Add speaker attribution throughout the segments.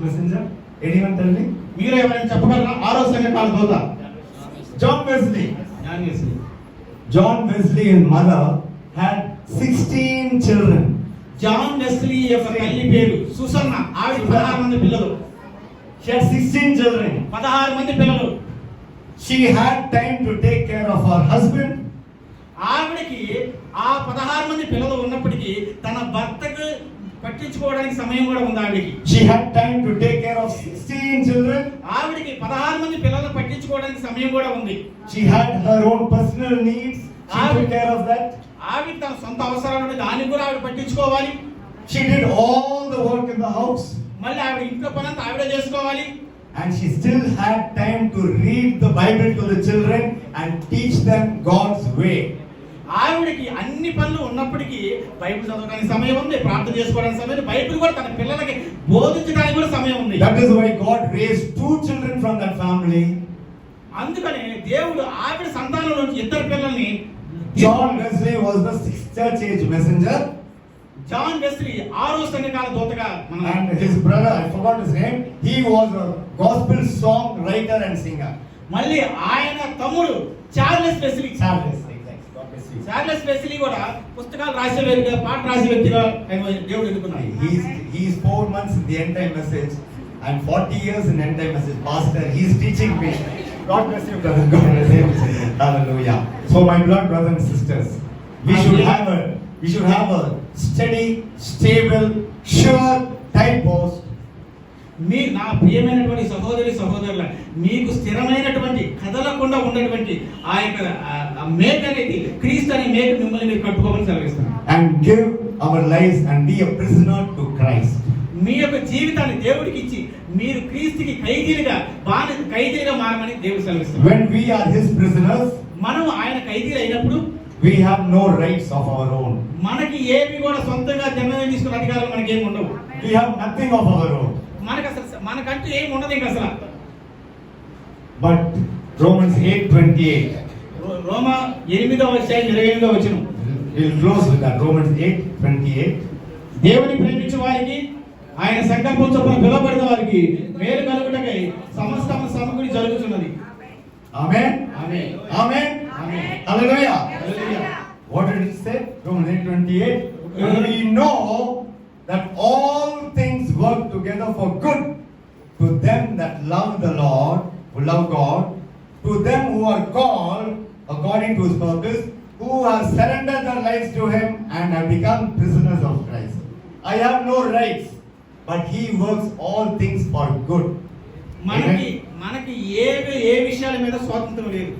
Speaker 1: messenger? Anyone tell me?
Speaker 2: మీరు ఎవరైనా చెప్పగలరా ఆరో సంఘటన వాళ్ళ దూత
Speaker 1: John Wesley.
Speaker 2: జ్ఞాన్ వేసింది
Speaker 1: John Wesley and mother had 16 children.
Speaker 2: John Wesley యొక్క తల్లి పేరు సుసన్న ఆవిడ పదహారు మంది పిల్లలు
Speaker 1: She had 16 children.
Speaker 2: పదహారు మంది పిల్లలు
Speaker 1: She had time to take care of her husband.
Speaker 2: ఆవిడకి ఆ పదహారు మంది పిల్లలు ఉన్నప్పటికీ తన భర్తకు పట్టించుకోవడానికి సమయం కూడా ఉంది ఆవిడకి
Speaker 1: She had time to take care of 16 children.
Speaker 2: ఆవిడకి పదహారు మంది పిల్లలు పట్టించుకోవడానికి సమయం కూడా ఉంది
Speaker 1: She had her own personal needs. She took care of that.
Speaker 2: ఆవిడ తన సొంత అవసరాలు ఉంటే దాన్ని కూడా ఆవిడ పట్టించుకోవాలి
Speaker 1: She did all the work in the house.
Speaker 2: మళ్ళీ ఆవిడ ఇంట్లో పనంతా ఆవిడ చేసుకోవాలి
Speaker 1: And she still had time to read the Bible to the children and teach them God's way.
Speaker 2: ఆవిడకి అన్ని పనులు ఉన్నప్పటికీ బైబిల్ చదవడానికి సమయం ఉంది ప్రార్థన చేసుకోవడానికి సమయం ఉంది బైబిల్ కూడా తన పిల్లలకి బోధించడానికి కూడా సమయం ఉంది
Speaker 1: That is why God raised two children from that family
Speaker 2: అందుకనే దేవుడు ఆవిడ సంతానం నుంచి ఇద్దరు పిల్లల్ని
Speaker 1: John Wesley was the sixth church age messenger,
Speaker 2: John Wesley ఆరో సంఘకాల దూతగా మనం
Speaker 1: and his brother, I forgot his name, he was a gospel song writer and singer.
Speaker 2: మళ్ళీ ఆయన తమ్ముడు Charles Wesley
Speaker 1: Charles, exactly. God bless you.
Speaker 2: Charles Wesley కూడా పుస్తకాలు రాసే వ్యక్తిగా పాట రాసే వ్యక్తిగా ఆయన దేవుడు ఎన్నుకున్నాడు
Speaker 1: He's, he's four months in the end time message and 40 years in end time message. Pastor, he's teaching me. God bless you, brother. God bless you. Hallelujah. So, my beloved brothers and sisters, we should have a we should have a steady, stable, sure time post
Speaker 2: మీ నా ప్రియమైనటువంటి సహోదరి సహోదరుల మీకు స్థిరమైనటువంటి కదలకుండా ఉన్నటువంటి ఆ యొక్క ఆ- ఆ మేక అనేది క్రీస్తు అనే మేక మిమ్మల్ని మీరు కట్టుకోమని సెలవిస్తాను
Speaker 1: and give our lives and be a prisoner to Christ.
Speaker 2: మీ యొక్క జీవితాన్ని దేవుడికి ఇచ్చి మీరు క్రీస్తుకి ఖైదీలుగా బాని ఖైదీలుగా మారమని దేవుడు సెలవిస్తాడు
Speaker 1: When we are His prisoners,
Speaker 2: మనం ఆయన ఖైదీలు అయినప్పుడు
Speaker 1: we have no rights of our own.
Speaker 2: మనకి ఏమి కూడా సొంతంగా జన్మ తీసుకున్న అధికారాలు మనకి ఏమి ఉండవు
Speaker 1: We have nothing of our own.
Speaker 2: మనకు అసలు మనకంటూ ఏమి ఉండదు ఇంకా అసలు
Speaker 1: But Romans 8:28.
Speaker 2: రో- రోమా ఎనిమిదో అధ్యాయం ఇరవై ఎనిమిదో వచ్చిన
Speaker 1: We'll close with that. Romans 8:28.
Speaker 2: దేవుని ప్రేమించే వారికి ఆయన సంకల్పం చొప్పున పిలువబడిన వారికి మేలు కలుగుటకై సమస్తము సమకూడి జరుగుతున్నది
Speaker 1: Amen.
Speaker 2: ఆమె
Speaker 1: Amen.
Speaker 2: Amen.
Speaker 1: Hallelujah.
Speaker 2: Hallelujah.
Speaker 1: What did it say? Romans 8:28. And we know that all things work together for good to them that love the Lord, who love God, to them who are called according to his purpose, who have surrendered their lives to him and have become prisoners of Christ. I have no rights, but he works all things for good.
Speaker 2: మనకి మనకి ఏ ఏ విషయాల మీద స్వాతంత్రం లేదు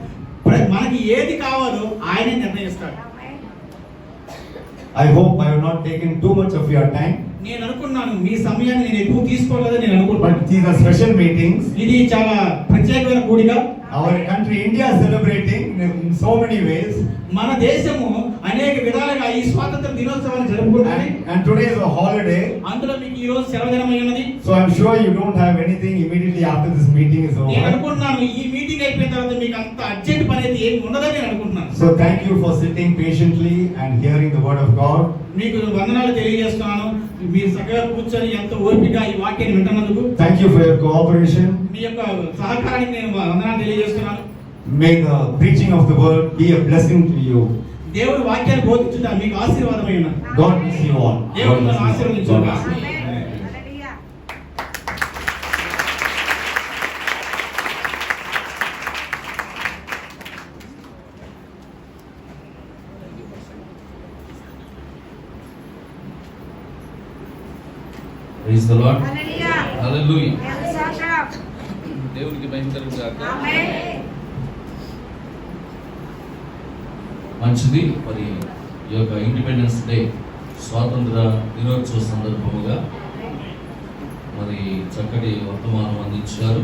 Speaker 2: ప్ర- మనకి ఏది కావాలో ఆయనే నిర్ణయిస్తాడు
Speaker 1: I hope I have not taken too much of your time,
Speaker 2: నేను అనుకున్నాను మీ సమయాన్ని నేను ఎక్కువ తీసుకోలేదని నేను అనుకుంటున్నాను
Speaker 1: but these are special meetings.
Speaker 2: ఇది చాలా ప్రత్యేకమైన కూడిక
Speaker 1: Our country, India, is celebrating in so many ways,
Speaker 2: మన దేశము అనేక విధాలుగా ఈ స్వాతంత్ర దినోత్సవాన్ని జరుపుకుంటుంది
Speaker 1: and, and today is a holiday.
Speaker 2: అందులో మీకు ఈ రోజు సెలవుదినం అయి ఉన్నది
Speaker 1: So I'm sure you don't have anything immediately after this meeting is
Speaker 2: నేను
Speaker 1: over.
Speaker 2: అనుకుంటున్నాను ఈ మీటింగ్ అయిపోయిన తర్వాత మీకు అంత అర్జెంట్ పని అయితే ఏమి ఉండదని నేను అనుకుంటున్నాను
Speaker 1: So thank you for sitting patiently and hearing the word of God.
Speaker 2: మీకు వందనాలు తెలియజేస్తున్నాను మీరు చక్కగా కూర్చొని ఎంతో ఓపిక ఈ వాక్యాన్ని వింటున్నందుకు
Speaker 1: Thank you for your cooperation.
Speaker 2: మీ యొక్క సహకారానికి నేను వందనాలు తెలియజేస్తున్నాను
Speaker 1: May the preaching of the word be a blessing to you.
Speaker 2: దేవుడి వాక్యాన్ని బోధించుట మీకు ఆశీర్వాదమై ఉన్నది
Speaker 1: God bless you all.
Speaker 2: దేవుడు
Speaker 1: God bless
Speaker 2: మిమ్మల్ని
Speaker 1: you.
Speaker 2: ఆశీర్వదించు.
Speaker 1: God bless you.
Speaker 3: Hallelujah.
Speaker 4: Praise the lord
Speaker 3: Hallelujah.
Speaker 4: Hallelujah
Speaker 3: Hands are up.
Speaker 4: దేవునికి మహిమ కలుగు గాక
Speaker 3: Amen.
Speaker 4: మంచిది మరి ఈ యొక్క ఇండిపెండెన్స్ డే స్వాతంత్ర దినోత్సవ సందర్భముగా మరి చక్కటి వర్తమానం అందించారు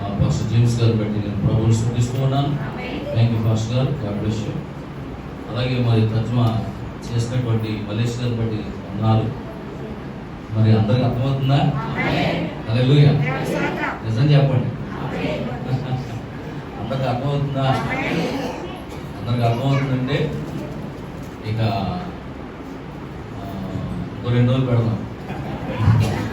Speaker 4: ఆ, పాస్టర్ జేమ్స్ గారు బట్టి నేను ప్రభువుని స్థుతిస్తూ ఉన్నాను
Speaker 3: Amen.
Speaker 4: థ్యాంక్ యూ పాస్టర్ గారు గాడ్ బ్లెస్ యూ అలాగే మరి తర్జుమా చేసినటువంటి మలేష్ గారు బట్టి ఉన్నారు మరి అందరికి అర్థమవుతుందా
Speaker 3: Amen.
Speaker 4: Hallelujah
Speaker 3: Hands are up.
Speaker 4: నిజం చెప్పండి
Speaker 3: Amen.
Speaker 4: అందరికి అర్థమవుతుందా
Speaker 3: Amen.
Speaker 4: అందరికి అర్థమవుతుందంటే 어, ఇక ఆ, ఇంకో రెండు రోజులు పెడదాం